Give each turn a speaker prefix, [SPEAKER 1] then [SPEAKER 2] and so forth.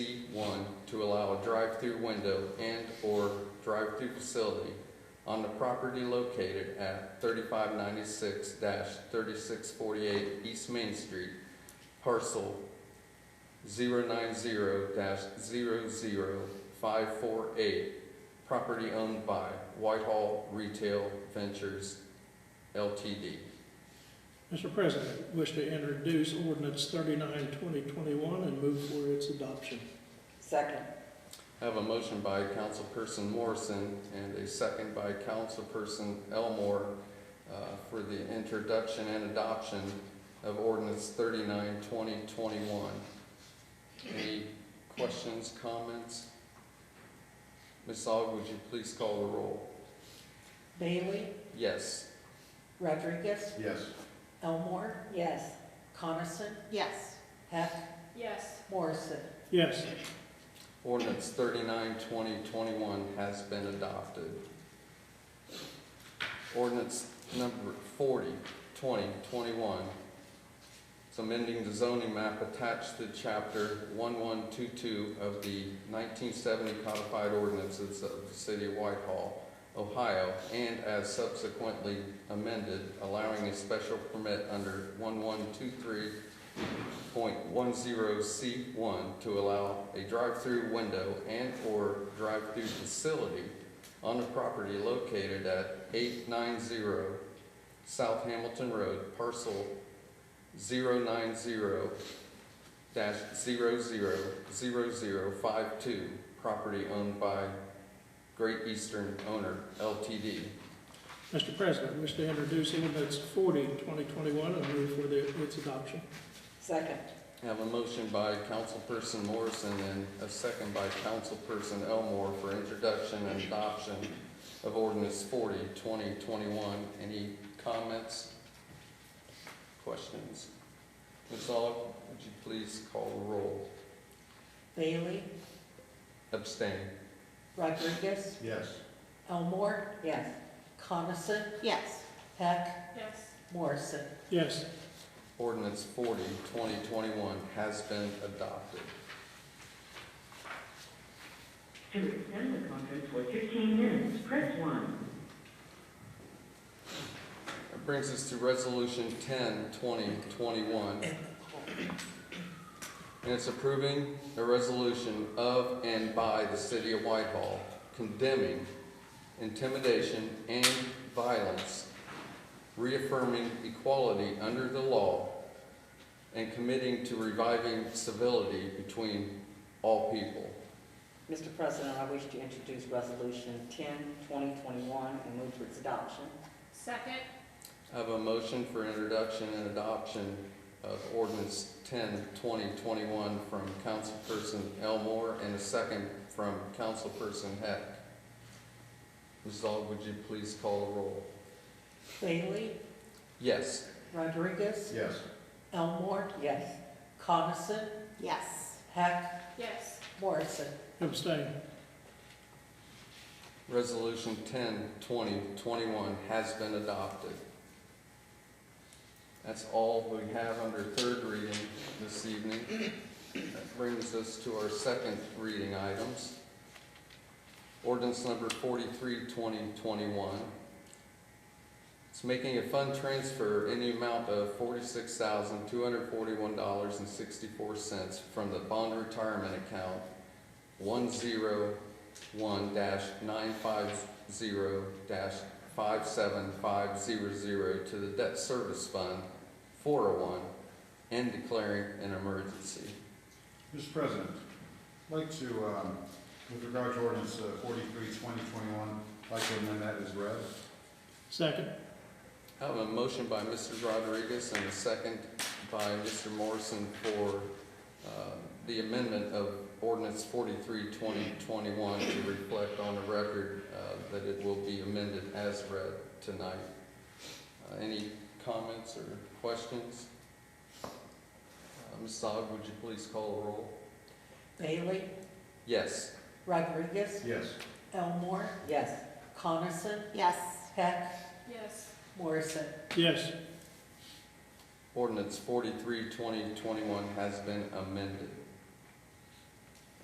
[SPEAKER 1] one, to allow a drive-through window and/or drive-through facility on the property located at thirty-five ninety-six thirty-six forty-eight East Main Street, parcel 90 zero zero five four eight, property owned by Whitehall Retail Ventures LTD.
[SPEAKER 2] Mr. President, wish to introduce ordinance 39 2021 and move for its adoption.
[SPEAKER 3] Second.
[SPEAKER 1] I have a motion by Councilperson Morrison and a second by Councilperson Elmore uh, for the introduction and adoption of ordinance 39 2021. Any questions, comments? Ms. Aug, would you please call the roll?
[SPEAKER 4] Bailey,
[SPEAKER 1] Yes.
[SPEAKER 4] Rodriguez,
[SPEAKER 5] Yes.
[SPEAKER 4] Elmore,
[SPEAKER 3] Yes.
[SPEAKER 4] Coniston,
[SPEAKER 6] Yes.
[SPEAKER 4] Heck,
[SPEAKER 6] Yes.
[SPEAKER 4] Morrison.
[SPEAKER 2] Yes,
[SPEAKER 1] Ordinance 39 2021 has been adopted. Ordinance number 40 2021. It's amending the zoning map attached to chapter one one two two of the nineteen seventy codified ordinances of the city of Whitehall, Ohio, and as subsequently amended, allowing a special permit under one one two three .10C1 to allow a drive-through window and/or drive-through facility on the property located at 890 South Hamilton Road, parcel 090-000052, property owned by Great Eastern Owner LTD.
[SPEAKER 2] Mr. President, wish to introduce ordinance 40 2021 and move for the- its adoption.
[SPEAKER 3] Second.
[SPEAKER 1] I Have a motion by Councilperson Morrison and a second by Councilperson Elmore for introduction and adoption of ordinance 40 2021. Any comments? Questions? Ms. Aug, would you please call the roll?
[SPEAKER 4] Bailey,
[SPEAKER 1] Abstain.
[SPEAKER 4] Rodriguez,
[SPEAKER 5] Yes.
[SPEAKER 4] Elmore,
[SPEAKER 3] Yes.
[SPEAKER 4] Coniston,
[SPEAKER 6] Yes.
[SPEAKER 4] Heck,
[SPEAKER 6] Yes.
[SPEAKER 4] Morrison.
[SPEAKER 2] Yes,
[SPEAKER 1] Ordinance 40 2021 has been adopted.
[SPEAKER 7] To extend the conference for 15 minutes, press 1.
[SPEAKER 1] That brings us to resolution 10 2021. And it's approving a resolution of and by the city of Whitehall condemning intimidation and violence, reaffirming equality under the law, and committing to reviving civility between all people.
[SPEAKER 3] Mr. President, I wish to introduce Resolution 10, 2021, and move for its adoption.
[SPEAKER 6] Second.
[SPEAKER 1] I have a motion for introduction and adoption of ordinance 10 2021 from Councilperson Elmore and a second from Councilperson Heck. Ms. Aug, would you please call the roll?
[SPEAKER 4] Bailey,
[SPEAKER 1] Yes.
[SPEAKER 4] Rodriguez,
[SPEAKER 5] Yes.
[SPEAKER 4] Elmore,
[SPEAKER 3] Yes.
[SPEAKER 4] Coniston,
[SPEAKER 6] Yes.
[SPEAKER 4] Heck,
[SPEAKER 6] Yes.
[SPEAKER 4] Morrison.
[SPEAKER 2] abstain.
[SPEAKER 1] Resolution 10 20 21 has been adopted. That's all we have under third reading this evening. That brings us to our second reading items. Ordinance number 43 2021. It's making a fund transfer in the amount of forty-six thousand, two hundred forty-one dollars and sixty-four cents from the bond retirement account one zero one dash nine five zero dash five seven five zero zero to the debt service fund four oh one and declaring an emergency.
[SPEAKER 5] Mr. President, I'd like to, um, with regard to ordinance uh, 43, 2021, I'd like to amend that as read.
[SPEAKER 2] Second,
[SPEAKER 1] I have a motion by Mr. Rodriguez and a second by Mr. Morrison for uh, the amendment of ordinance 43-2021 to reflect on the record uh, that it will be amended as read tonight. Uh, Any comments or questions? Uh, Ms. Aug, would you please call the roll?
[SPEAKER 4] Bailey,
[SPEAKER 1] Yes.
[SPEAKER 4] Rodriguez,
[SPEAKER 5] Yes.
[SPEAKER 4] Elmore,
[SPEAKER 3] Yes.
[SPEAKER 4] Coniston,
[SPEAKER 6] Yes.
[SPEAKER 4] Heck,
[SPEAKER 6] Yes.
[SPEAKER 4] Morrison.
[SPEAKER 2] yes,
[SPEAKER 1] Ordinance 43-2021 has been amended.